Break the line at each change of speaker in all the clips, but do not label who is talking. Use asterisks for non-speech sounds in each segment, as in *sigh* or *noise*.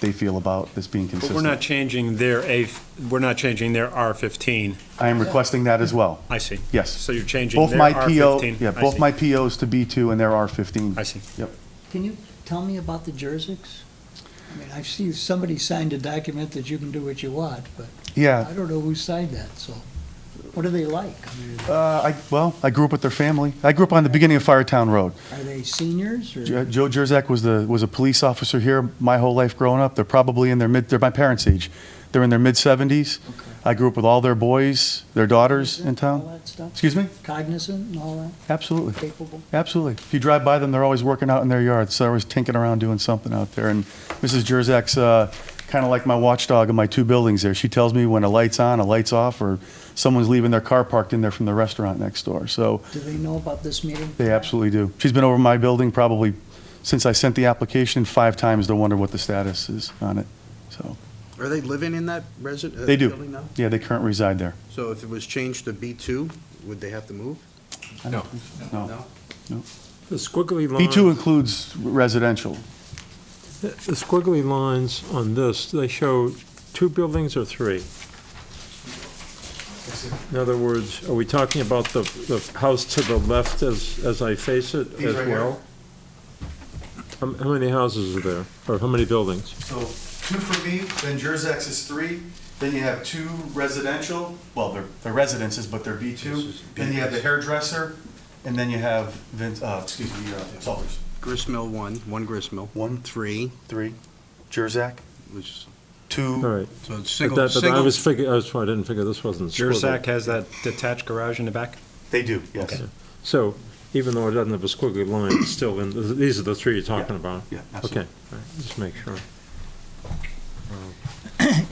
they feel about this being
But we're
consistent.
not changing their A, we're not changing their R15.
I am requesting that as well.
I see.
Yes.
So you're changing
Both
their
my PO,
R15.
yeah,
I
both
see.
my POs to B2 and their R15.
I see.
Yep.
Can you tell me about the Jerseys? I mean, I see somebody signed a document that you can do what you want, but I
Yeah,
don't know who signed that, so what are they like? I mean,
uh, I, well, I grew up with their family. I grew up on the beginning of Firetown Road.
Are they seniors
Jo-
or?
Joe Jerzak was the, was a police officer here my whole life growing up. They're probably in their mid, they're my parents' age. They're in their mid-70s. I grew up with all their boys, their daughters in
All
town.
that stuff?
Excuse me?
Cognizant and all that,
Absolutely.
capable?
Absolutely. If you drive by them, they're always working out in their yards. So they're always tinking around doing something out there. And Mrs. Jerzak's uh, kind of like my watchdog in my two buildings there. She tells me when a light's on, a light's off, or someone's leaving their car parked in there from the restaurant next door. So
Do they know about this meeting?
they absolutely do. She's been over my building probably since I sent the application five times to wonder what the status is on it. So
Are they living in that resident? uh,
they
Building
do.
now?
Yeah, they currently reside there.
So if it was changed to B2, would they have to move?
No. No.
No?
The squiggly lines.
B2 includes residential.
The squiggly lines on this, they show two buildings or three? In other words, are we talking about the, the house to the left as, as I face it
These
as
right here.
well? How how many houses are there, or how many buildings?
So two for me, then Jerzex is three, then you have two residential, well, they're, they're residences, but they're B2. Then you have the hairdresser, and then you have Vince, uh, excuse me, uh, Salters.
Gristmill, one, one gristmill.
One.
Three,
Three, Jerzac,
which,
two.
All right.
so it's
But
single,
that, but I
single,
was figuring, I was, sorry, I didn't figure this wasn't squiggly.
Jurzac has that detached garage in the back?
They do, yes.
So even though it doesn't have a squiggly line, it's still in, these are the three you're talking
Yeah.
about?
Yeah, absolutely.
Okay, all right, just make sure.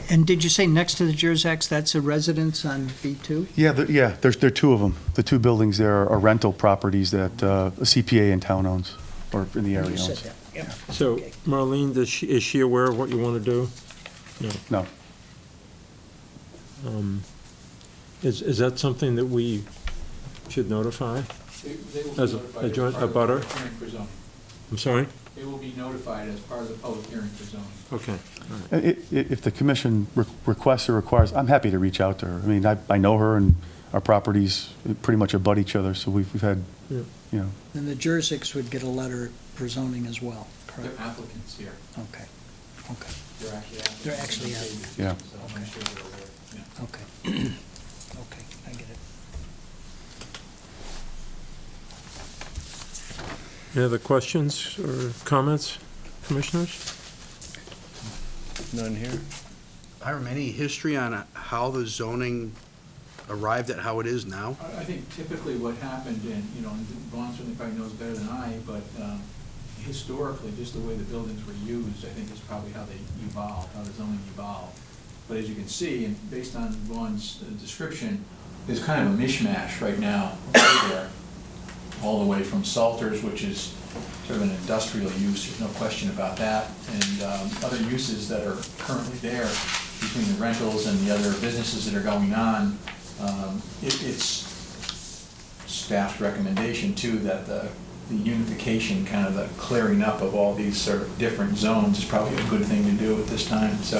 And did you say next to the Jerseys, that's a residence on B2?
Yeah, there- yeah, there's, there are two of them. The two buildings there are rental properties that uh, a CPA in town owns, or in the area
You said
owns.
that, yeah.
So
Okay.
Marlene, does she, is she aware of what you want to do?
No,
Um, Is, is that something that we should notify?
They- they will be
As a-
notified
a
as
joint-
part
a
of the
butter?
public hearing for zoning.
I'm sorry?
They will be notified as part of the public hearing for zoning.
Okay.
I- i- If the commission re- requests or requires, I'm happy to reach out to her. I mean, I I know her, and our properties pretty much abut each other, so we've we've had,
Yeah.
you know,
And the Jerseys would get a letter for zoning as well, correct?
They're applicants here.
Okay, okay, *clears throat*
They're
They're actually
actually applicants. So
applicants.
Yeah.
I'm sure they're aware, yeah.
okay. Okay, I get it.
Any other questions or comments, commissioners?
None here.
Hiram, any history on uh, how the zoning arrived at how it is now?
I I think typically what happened, and, you know, and Vaughn certainly probably knows better than I, but um, historically, just the way the buildings were used, I think is probably how they evolved, how the zoning evolved. But as you can see, and based on Vaughn's uh, description, there's kind of a mishmash right now there, all the way from Salters, which is sort of an industrial use, there's no question about that, and um, other uses that are currently there between the rentals and the other businesses that are going on. Um, it- It's staff's recommendation too, that the the unification, kind of the clearing up of all these sort of different zones is probably a good thing to do at this time. So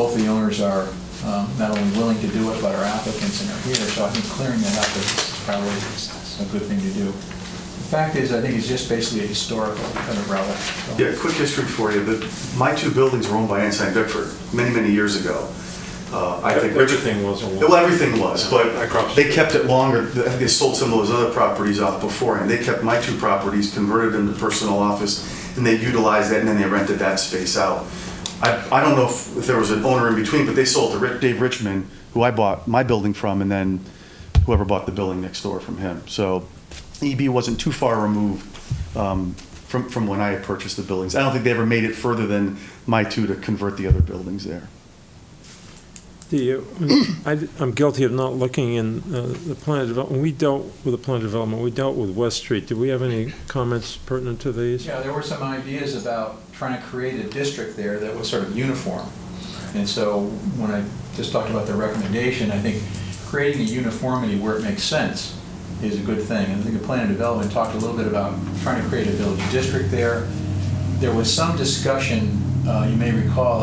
both the owners are um, not only willing to do it, but are applicants and are here, so I think clearing that up is probably a good thing to do. The fact is, I think it's just basically a historical kind of relic. so.
Yeah, quick history for you. The, my two buildings were owned by Ensign Bickford many, many years ago. Uh, I think Richard,
Everything was a
well,
lot.
everything was, but
Across.
they kept it longer. I think They sold some of those other properties off beforehand. They kept my two properties, converted them to personal office, and they utilized that, and then they rented that space out. I, I don't know if, if there was an owner in between, but they sold to Rick, Dave Richmond, who I bought my building from, and then whoever bought the building next door from him. So EB wasn't too far removed um, from, from when I had purchased the buildings. I don't think they ever made it further than my two to convert the other buildings there.
*coughs* The, uh, I, I'm guilty of not looking in uh, the plan development. When we dealt with the plan development, we dealt with West Street. Do we have any comments pertinent to these?
Yeah, there were some ideas about trying to create a district there that was sort of uniform. And so when I just talked about the recommendation, I think creating a uniformity where it makes sense is a good thing. And I think the plan and development talked a little bit about trying to create a village district there. There was some discussion uh, you may recall,